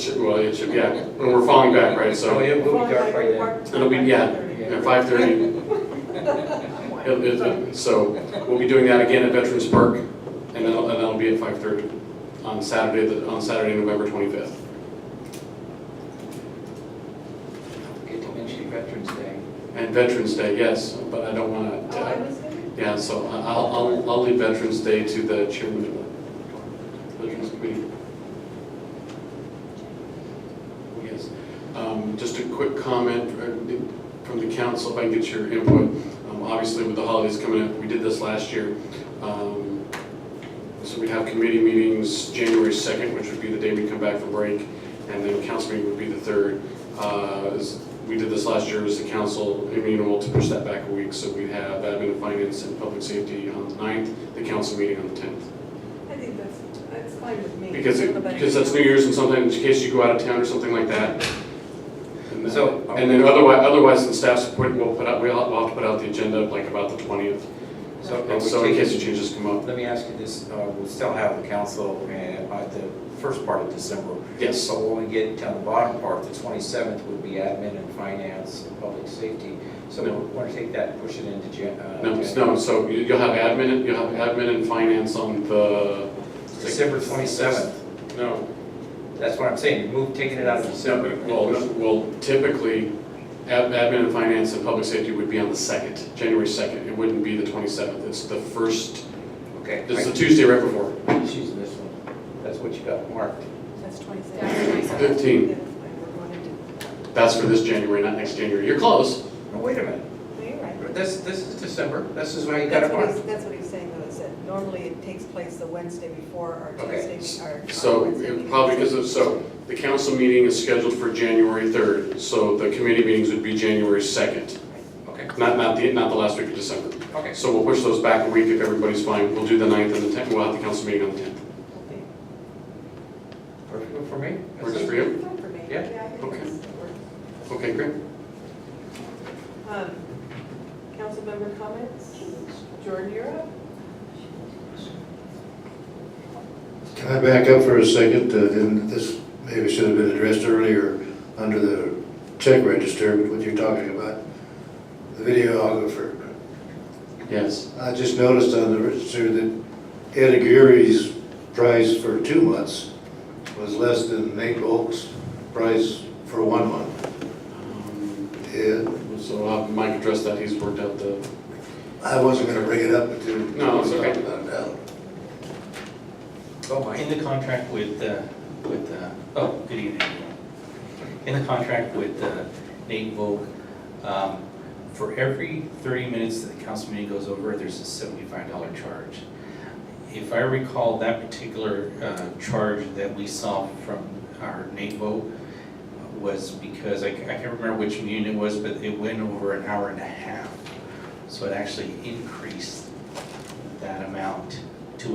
Well, it should, yeah, and we're falling back, right, Oh, so it will be dark by then. it'll be, yeah, at five thirty. So we'll be doing that again at Veterans Park, and then, and that'll be at five thirty on Saturday, the- on Saturday, November twenty-fifth. Get to mention Veterans Day. And Veterans Day, yes, but I don't wanna, uh, Oh, I was gonna, yeah, so I- I'll, I'll, I'll leave Veterans Day to the chairman of the Veterans Committee. Oh, Yes, um, just a quick comment uh, from the council, if I can get your input. Um, Obviously, with the holidays coming up, we did this last year. Um, So we'd have committee meetings January 2nd, which would be the day we come back from break, and then council meeting would be the 3rd. Uh, as We did this last year, as the council amenable to push that back a week, so we have admin and finance and public safety on the 9th, the council meeting on the 10th. I think that's, that's fine with me. Because, it- because that's New Year's and sometimes in case you go out of town or something like that. And then- So- And then otherwise, otherwise the staff's point, we'll put out, we'll have to put out the agenda like about the twentieth. So And so in case the changes come up, Let me ask you this, uh, we'll still have the council uh, at the first part of December. yes, So when we get down the bottom part, the 27th would be admin and finance and public safety. So we No. want to take that and push it into Jan. uh, no, Jan- no, so you- you'll have admin, you'll have admin and finance on the. December 27th. No, That's what I'm saying, move, taking it out of December. well, well, typically, ad- admin and finance and public safety would be on the second, January second, it wouldn't be the twenty-seventh, it's the first, Okay. it's the Tuesday right before, I'm choosing this one. That's what you got marked. That's Good. twenty-six. 15. Yeah, that's fine, we're going to- that's for this January, not next January, you're close. No, wait a minute, No, you're right. this, this is December, this is why you got That's it what marked. he's, that's what he's saying though, is that normally it takes place the Wednesday before or Okay. Tuesday, or. or So, Wednesday it meeting. probably because of, so, the council meeting is scheduled for January 3rd, so the committee meetings would be January 2nd, Okay, not, not the, not the last week of December. okay. So we'll push those back a week if everybody's fine, we'll do the 9th and the 10th, we'll have the council meeting on the 10th. Okay. Perfect for me? Works for you? Fine for me. Yeah, I think okay. that's- that works. Okay, great. Um, Council member comments? Jordan, you're up. Can I back up for a second? Uh, And this maybe should have been addressed earlier under the check register, what you're talking about, the videographer. Yes. I just noticed on the register that Ed Aguirre's price for two months was less than Nate Oak's price for one month. Um, Ed, So I'll have Mike address that, he's worked out the, I wasn't gonna bring it up until. No, it's okay. Go, Mike. Oh, In the contract with, uh, with, uh, oh, good evening. everyone. In the contract with uh, Nate Volk, um, for every 30 minutes that the council meeting goes over, there's a $75 charge. If I recall, that particular uh, charge that we saw from our Nate Volk was because, I I can't remember which meeting it was, but it went over an hour and a half. So it actually increased that amount.